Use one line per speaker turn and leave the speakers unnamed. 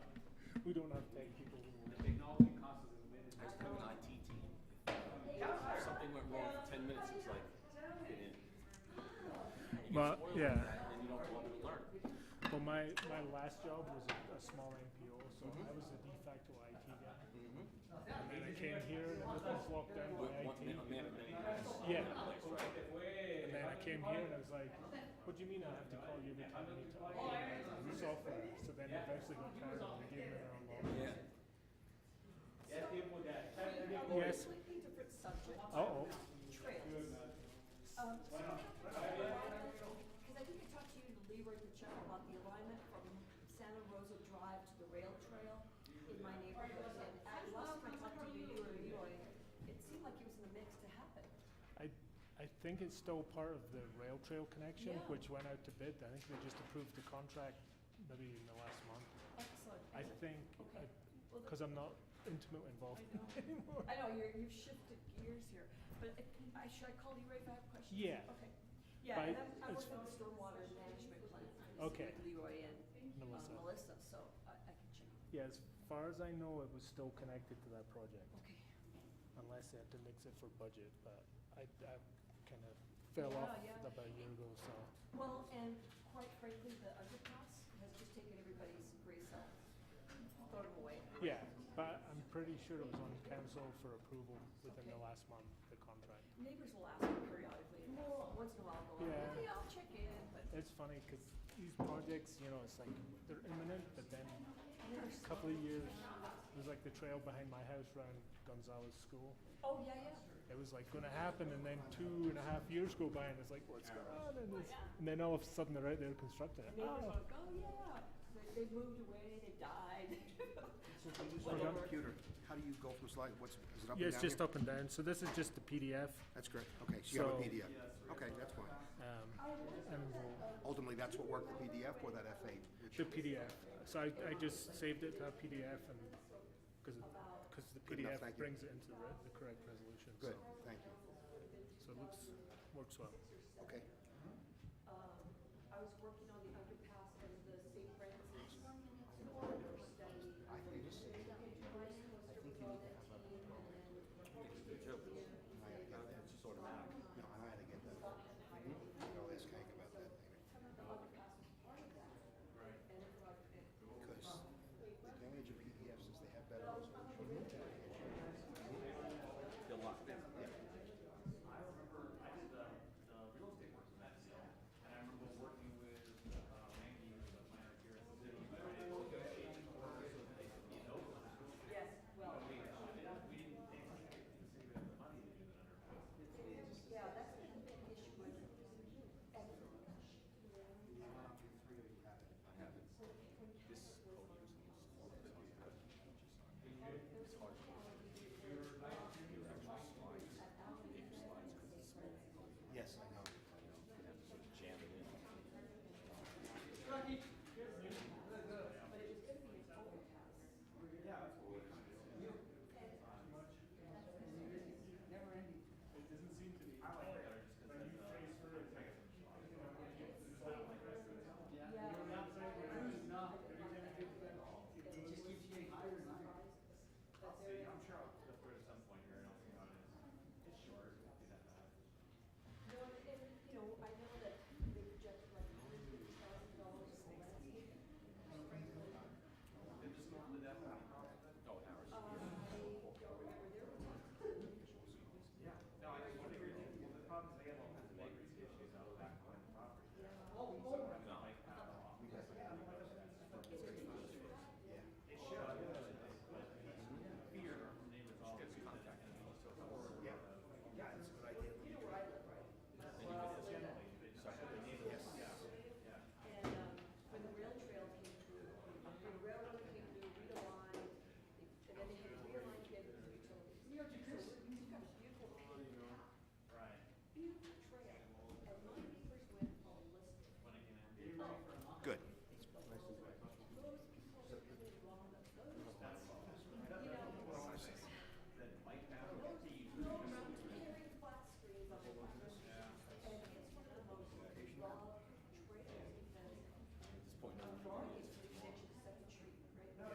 Yeah.
and you don't go up and learn.
Well, my, my last job was a, a small NPO, so
Mhm.
I was a de facto IT guy.
Mm-hmm.
And then I came here and everything was locked down by
One
IT.
man, a man of many hats.
Yeah.
Place, right?
And then I came here and I was like, what do you mean I have to call you every time I need to update my software? So then eventually got tired of the game and I'm like,
Yeah.
Yes.
Completely different subject.
Uh-oh.
Trails. Um, so can we talk about the alignment? Because I think I talked to you and Leroy Pacheco about the alignment from Santa Rosa Drive to the rail trail in my neighborhood. And at last time I talked to you, you were Leroy, it seemed like it was in the mix to happen.
I, I think it's still part of the rail trail connection,
Yeah.
which went out to bid. I think they just approved the contract maybe in the last month.
Excellent.
I think,
Okay. Well,
because I'm not intimately involved
I know.
anymore.
I know, you're, you've shifted gears here, but uh, I- I, should I call you right back, question?
Yeah.
Okay.
But
Yeah, and I'm, I'm
it's-
working on the stormwater management plan.
Okay.
With Leroy and uh,
Melissa.
Melissa, so I, I can check.
Yeah, as far as I know, it was still connected to that project,
Okay.
unless they had to mix it for budget, but I, I kind of fell off
Yeah, yeah.
about a year ago, so.
Well, and quite frankly, the underpass has just taken everybody's gray cell, thrown them away.
Yeah, but I'm pretty sure it was on council for approval within the
Okay.
last month, the contract.
Neighbors will ask me periodically, and once in a while, they'll,
Yeah.
yeah, I'll check in, but
It's funny, because these projects, you know, it's like, they're imminent, but then
there's,
a couple of years, there's like the trail behind my house around Gonzalez School.
oh, yeah, yeah.
It was like gonna happen, and then two and a half years go by, and it's like, what's going on? And, it's, and then all of a sudden, they're out there constructing it.
Neighbors
Oh,
are like, oh, yeah, they, they moved away, they died.
Well
On
done.
the computer, how do you go from slide, what's, is it up and down
Yeah, it's just
here?
up and down. So this is just the PDF.
That's great, okay, so you have a
So-
PDF, okay, that's fine.
Um, and we'll-
Ultimately, that's what worked for PDF or that F eight?
the PDF. So I, I just saved it to a PDF and because because the
Good
PDF
enough, thank you.
brings it into the, re- the correct resolution.
Good,
So,
thank you,
so it looks works well.
okay.
Um, I was working on the Mm-hmm. um,